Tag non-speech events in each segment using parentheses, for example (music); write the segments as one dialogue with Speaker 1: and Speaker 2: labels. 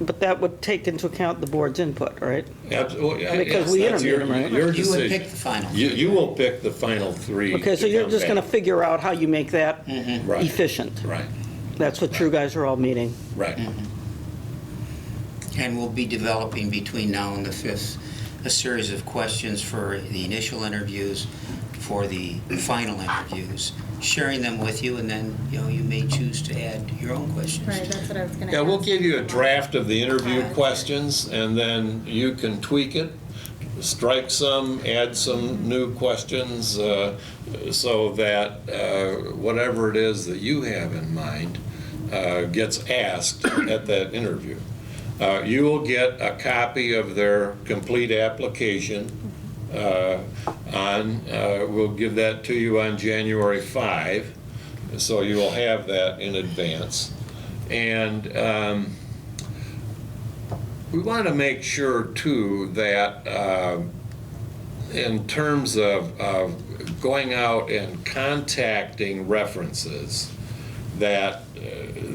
Speaker 1: but that would take into account the board's input, right?
Speaker 2: Absolutely.
Speaker 1: Because we interviewed them, right?
Speaker 2: Your
Speaker 3: You would
Speaker 2: decision.
Speaker 3: pick the final.
Speaker 2: You, you will pick the final three.
Speaker 1: Okay, so you're just going to
Speaker 2: come
Speaker 1: figure out how you make that
Speaker 2: Right.
Speaker 1: efficient.
Speaker 2: back. Right,
Speaker 1: That's what you guys are all meeting.
Speaker 2: right.
Speaker 3: And we'll be developing between now and the 5th, a series of questions for the initial interviews, for the final interviews, sharing them with you, and then, you know, you may choose to add your own questions.
Speaker 4: Right, that's what I was gonna ask.
Speaker 2: Yeah, we'll give you a draft of the interview
Speaker 4: Okay.
Speaker 2: questions, and then you can tweak it, strike some, add some new questions, uh, so that uh, whatever it is that you have in mind uh, gets asked (coughs) at that interview. Uh, You will get a copy of their complete application uh, on, uh, we'll give that to you on January 5, so you will have that in advance. And um, we want to make sure, too, that um, in terms of, of going out and contacting references, that uh,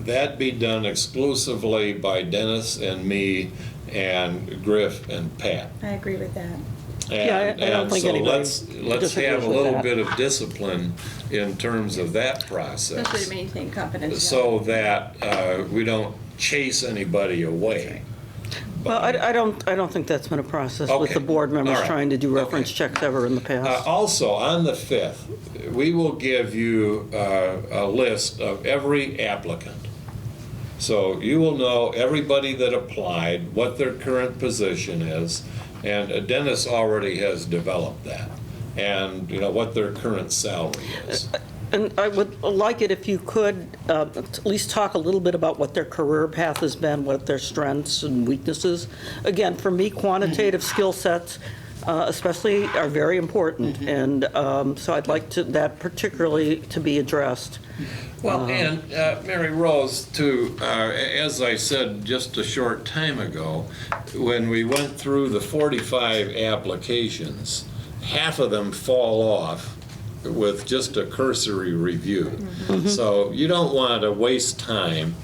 Speaker 2: that be done exclusively by Dennis and me and Griff and Pat.
Speaker 4: I agree with that.
Speaker 1: Yeah,
Speaker 2: And-
Speaker 1: I- I don't
Speaker 2: and
Speaker 1: think
Speaker 2: so
Speaker 1: anybody
Speaker 2: let's- Let's have
Speaker 1: disagrees
Speaker 2: a
Speaker 1: with
Speaker 2: little
Speaker 1: that.
Speaker 2: bit of discipline in terms of that process
Speaker 5: Especially to maintain confidentiality.
Speaker 2: so that uh, we don't chase anybody away.
Speaker 1: Well, I, I don't, I don't think that's been a process with the
Speaker 2: Okay.
Speaker 1: board members
Speaker 2: All right.
Speaker 1: trying to do reference checks ever in the
Speaker 2: Uh,
Speaker 1: past.
Speaker 2: Also, on the 5th, we will give you uh, a list of every applicant. So you will know everybody that applied, what their current position is, and Dennis already has developed that, and, you know, what their current salary is.
Speaker 1: And I would like it if you could uh, at least talk a little bit about what their career path has been, what their strengths and weaknesses. Again, for me, quantitative
Speaker 2: Mm-hmm.
Speaker 1: skill sets uh, especially are very important,
Speaker 2: Mm-hmm.
Speaker 1: and um, so I'd like to, that particularly to be addressed.
Speaker 2: Well,
Speaker 1: Uh-huh.
Speaker 2: and uh, Mary Rose, too, uh, as I said just a short time ago, when we went through the 45 applications, half of them fall off with just a cursory review.
Speaker 1: Mm-hmm.
Speaker 2: So you don't want to waste time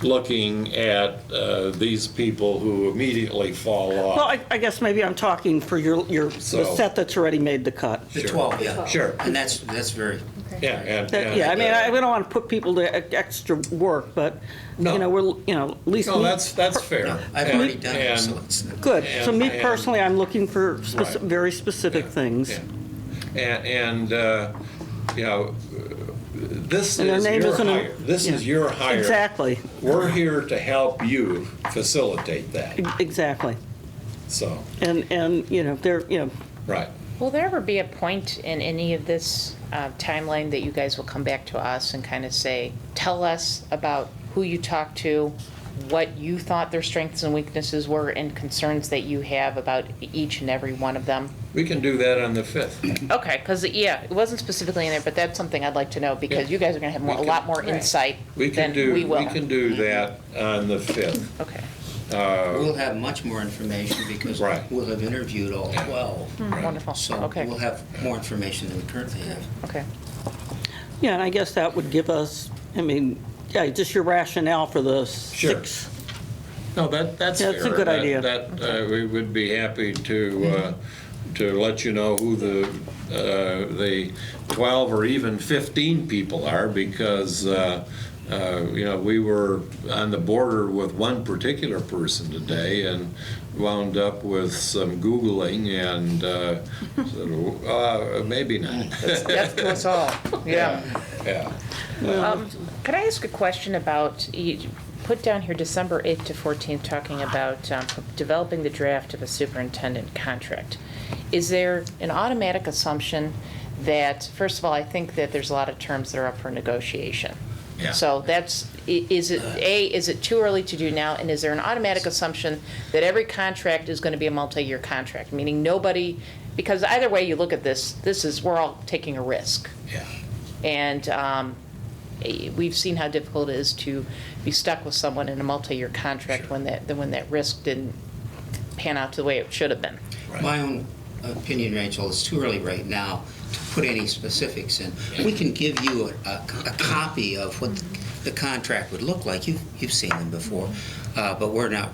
Speaker 2: looking at uh, these people who immediately fall
Speaker 1: Well,
Speaker 2: off.
Speaker 1: I I guess maybe I'm talking for your, your, the
Speaker 2: So-
Speaker 1: set that's already made the cut.
Speaker 3: The
Speaker 2: Sure.
Speaker 3: 12, yeah.
Speaker 2: Sure.
Speaker 3: And that's, that's very,
Speaker 2: Yeah, and-
Speaker 1: That-
Speaker 2: and,
Speaker 1: Yeah, I mean, I
Speaker 2: uh,
Speaker 1: we don't want to put people to e- extra work, but,
Speaker 2: No.
Speaker 1: you know, we're, you know, at least.
Speaker 2: No,
Speaker 1: me-
Speaker 2: that's, that's fair.
Speaker 3: I've
Speaker 2: And-
Speaker 3: already done it,
Speaker 2: and- uh,
Speaker 3: so it's.
Speaker 1: Good. So me
Speaker 2: and- and-
Speaker 1: personally, I'm looking for speci-
Speaker 2: Right.
Speaker 1: very specific
Speaker 2: Yeah,
Speaker 1: things.
Speaker 2: yeah. And, and, uh, you know, this
Speaker 1: And their
Speaker 2: is
Speaker 1: name
Speaker 2: your
Speaker 1: isn't a-
Speaker 2: hire. This is
Speaker 1: yeah.
Speaker 2: your hire.
Speaker 1: Exactly,
Speaker 2: We're here to help you facilitate that,
Speaker 1: e- exactly.
Speaker 2: so,
Speaker 1: And, and, you know, they're, you know,
Speaker 2: right.
Speaker 6: Will there ever be a point in any of this uh, timeline that you guys will come back to us and kind of say, tell us about who you talked to, what you thought their strengths and weaknesses were, and concerns that you have about each and every one of them?
Speaker 2: We can do that on the 5th.
Speaker 6: Okay, because, yeah, it wasn't specifically in there, but that's something I'd like to know, because
Speaker 2: Yeah.
Speaker 6: you guys are going to have more- a
Speaker 2: We
Speaker 6: lot
Speaker 2: can-
Speaker 6: more
Speaker 5: Right.
Speaker 6: insight
Speaker 2: We can
Speaker 6: than
Speaker 2: do,
Speaker 6: we will.
Speaker 2: we can do that on the 5th.
Speaker 6: Okay.
Speaker 3: We'll have much more information because
Speaker 2: Right.
Speaker 3: we'll have interviewed all 12.
Speaker 6: Wonderful.
Speaker 3: So
Speaker 6: Hmm. Okay.
Speaker 3: we'll have more information than we currently have.
Speaker 2: (laughs)
Speaker 6: Okay.
Speaker 1: yeah, and I guess that would give us, I mean, yeah, just your rationale for the
Speaker 2: Sure.
Speaker 1: six.
Speaker 2: No, that, that's
Speaker 1: Yeah, it's a
Speaker 2: fair.
Speaker 1: good
Speaker 2: That-
Speaker 1: idea.
Speaker 2: That, uh, we would be happy to, uh, to let you know who the, uh, the 12 or even 15 people are, because, uh, uh, you know, we were on the border with one particular person today and wound up with some Googling and, uh, said, uh, maybe not. (laughs)
Speaker 6: That's to us all, yeah.
Speaker 2: Yeah.
Speaker 6: Um, Could I ask a question about, you put down here December 8th to 14th, talking about um, developing the draft of a superintendent contract. Is there an automatic assumption that, first of all, I think that there's a lot of terms that are up for negotiation.
Speaker 2: Yeah.
Speaker 6: So that's, i- is it, A, is it too early to do now? And is there an automatic assumption that every contract is going to be a multi-year contract? Meaning nobody, because either way you look at this, this is, we're all taking a risk.
Speaker 2: Yeah.
Speaker 6: And um, eh, we've seen how difficult it is to be stuck with someone in a multi-year contract when that, when that risk didn't pan out the way it should have been.
Speaker 3: My own opinion, Rachel, it's too early right now to put any specifics in. We can give you a, a- a copy of what the contract would look like. You've, you've seen them before, uh, but we're not